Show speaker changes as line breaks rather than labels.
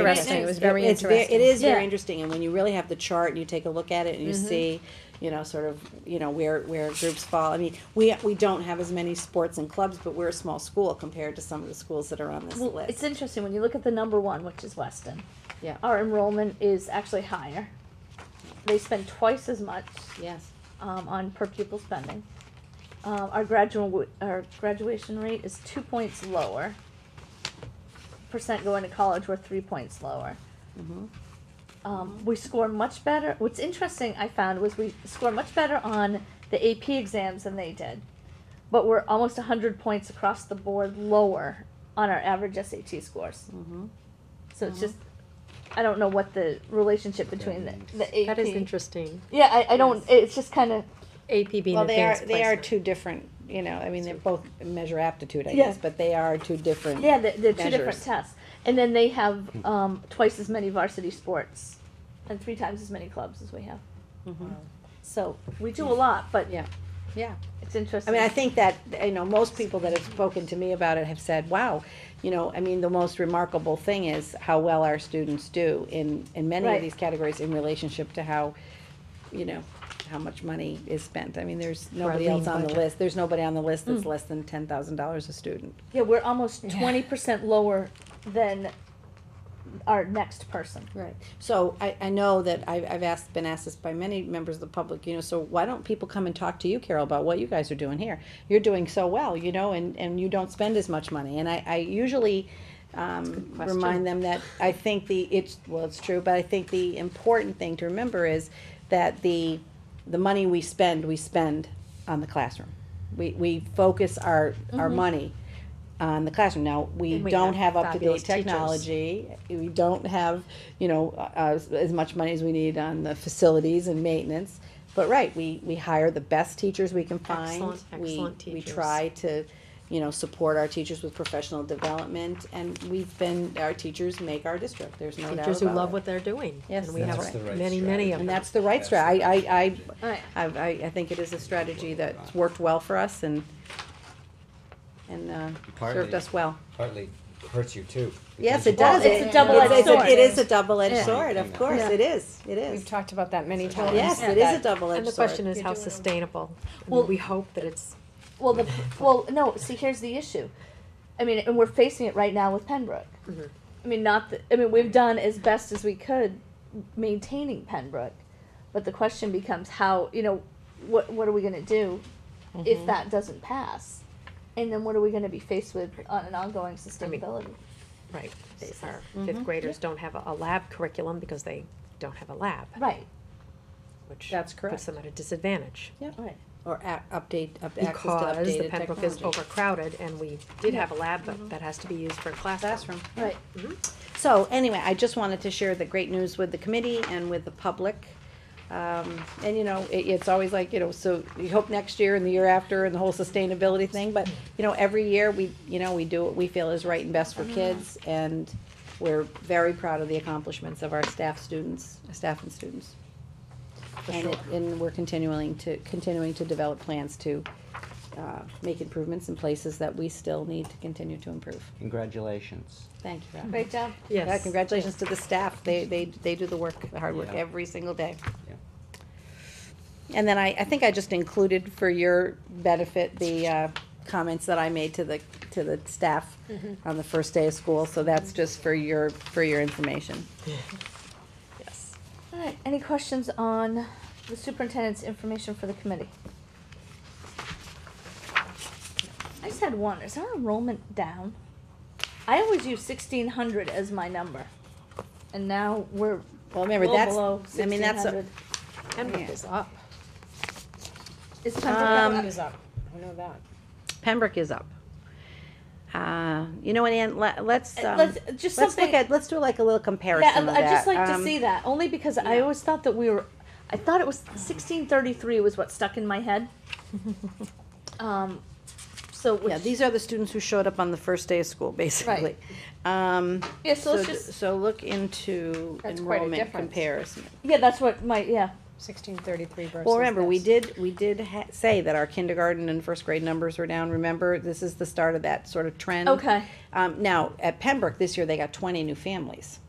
interesting. It was very
It's ve-
interesting.
It is
Yeah. Mm-hmm.
very interesting, and when you really have the chart and you take a look at it and you see, you know, sort of, you know, where, where groups fall. I mean, we, we don't have as many sports and clubs, but we're a small school compared to some of the schools that are on this
Well, it's
list.
interesting when you look at the number one, which is Weston.
Yeah.
Our enrollment is actually higher. They spend twice as much
Yes.
um, on per pupil spending. Um, our graduate our graduation rate is two points lower. Percent going to college we're three points lower.
Mm-hmm.
Um, we score much better. What's interesting I found was we score much better on the AP exams than they did, but we're almost hundred points across the board lower on our average SAT scores.
Mm-hmm.
So it's just I don't know what the relationship between the, the AP.
That is interesting.
Yeah, I, I don't. It's just kind of
AP being
Well, they are,
advanced
they are
placement.
two different, you know, I mean, they're both measure aptitude, I
Yeah.
guess, but they are two different.
Yeah, they're, they're two different
measures.
tests. And then they have um, twice as many varsity sports and three times as many clubs as we have. So we do a lot, but
Yeah. Yeah.
it's interesting.
I mean, I think that, you know, most people that have spoken to me about it have said, wow, you know, I mean, the most remarkable thing is how well our students do in, in many
Right.
of these categories in relationship to how, you know, how much money is spent. I mean, there's nobody else
lean
on the
budget.
list, there's nobody on the list that's less than ten thousand dollars a student.
yeah, we're almost twenty percent lower than our next person.
Right. So I, I know that I've, I've asked, been asked this by many members of the public, you know, so why don't people come and talk to you, Carol, about what you guys are doing here? You're doing so well, you know, and, and you don't spend as much money. And I, I usually, um, remind them that I think the, it's, well, it's true, but I think the important thing to remember is that the, the money we spend, we spend on the classroom. We, we focus our, our money on the classroom. Now, we
Mm-hmm. And we
don't
have
have up to
fabulous
date
teachers.
technology. We don't have, you know, uh, as, as much money as we need on the facilities and maintenance. But right, we, we hire the best teachers we can find.
Excellent,
We-
excellent
We
teachers.
try to, you know, support our teachers with professional development and we've been, our teachers make our district. There's no doubt
Teachers who
about
love
it.
what they're doing.
Yes,
And we
that's
have
right.
many, many of
And
them.
that's the right strategy. I, I, I,
All right.
I, I I think it is a strategy that's worked well for us and, and, uh, served
Partly-
us well.
partly hurts you too.
Yes,
because
it
you
does.
Well, it's a double-edged
it's a-
sword.
It is a double-edged
Yeah.
sword, of course,
Yeah.
it is, it
We've
is.
talked about that many times.
Yes, it is a double-edged sword.
And the question is how sustainable. I mean,
Well-
we hope that it's,
Well, the well, no. See, here's the issue. I mean, and we're facing it right now with Pembroke. I mean, not. The, I mean, we've done as best as we could maintaining Pembroke, but the question becomes how. You know, what what are we going to do if that doesn't pass? And then what are we going to be faced with on an ongoing sustainability?
right, our fifth graders don't have a- a lab curriculum because they don't have a lab,
right.
which
That's
puts them at a disadvantage.
Right.
Or a- update, up- access to
Because the
updated
Pembroke is
technology.
overcrowded and we did have a lab, but that has to be used for a classroom.
Classroom.
Right.
So anyway, I just wanted to share the great news with the committee and with the public. Um, and you know, it, it's always like, you know, so you hope next year and the year after and the whole sustainability thing, but, you know, every year we, you know, we do what we feel is right and best for kids and we're very proud of the accomplishments of our staff students, staff and students. And, it- and we're continuing to, continuing to develop plans to, uh, make improvements in places that we still need to continue to improve.
Congratulations.
Thank you, Rob.
Great job.
Yeah,
Yes.
congratulations to the staff. They, they, they do the work, the hard work
Yeah.
every single day.
Yeah.
And then I, I think I just included for your benefit the, uh, comments that I made to the, to the staff on the first day of school, so that's just for your, for your information.
Yes.
All right. Any questions on the superintendent's information for the committee? I just had one. Is our enrollment down? I always use sixteen hundred as my number, and now we're
Well, remember,
well below
that's, I mean,
sixteen
that's, uh, a-
hundred.
Pembroke is up.
Is
Um,
Pembroke down?
Who's up? I know that.
Pembroke is up. Uh, you know what, Ann, let, let's,
Uh,
um,
let's-
let's
just
look
something-
at, let's do like a little comparison
Yeah,
of that.
I- I'd just like to
Um,
see that, only because I always thought that we were, I thought it was sixteen thirty-three was what stuck in my head. Um, so,
Yeah,
which,
these are the students who showed up on the first day of school, basically. Um,
yeah, so
So,
let's
d-
just,
so look into
That's quite a
enrollment
difference.
comparison.
yeah, that's what my, yeah,
Sixteen thirty-three versus.
Well, remember, we
this.
did, we did ha- say that our kindergarten and first grade numbers were down. Remember, this is the start of that sort of trend.
okay.
Um, now, at Pembroke this year, they got twenty new families.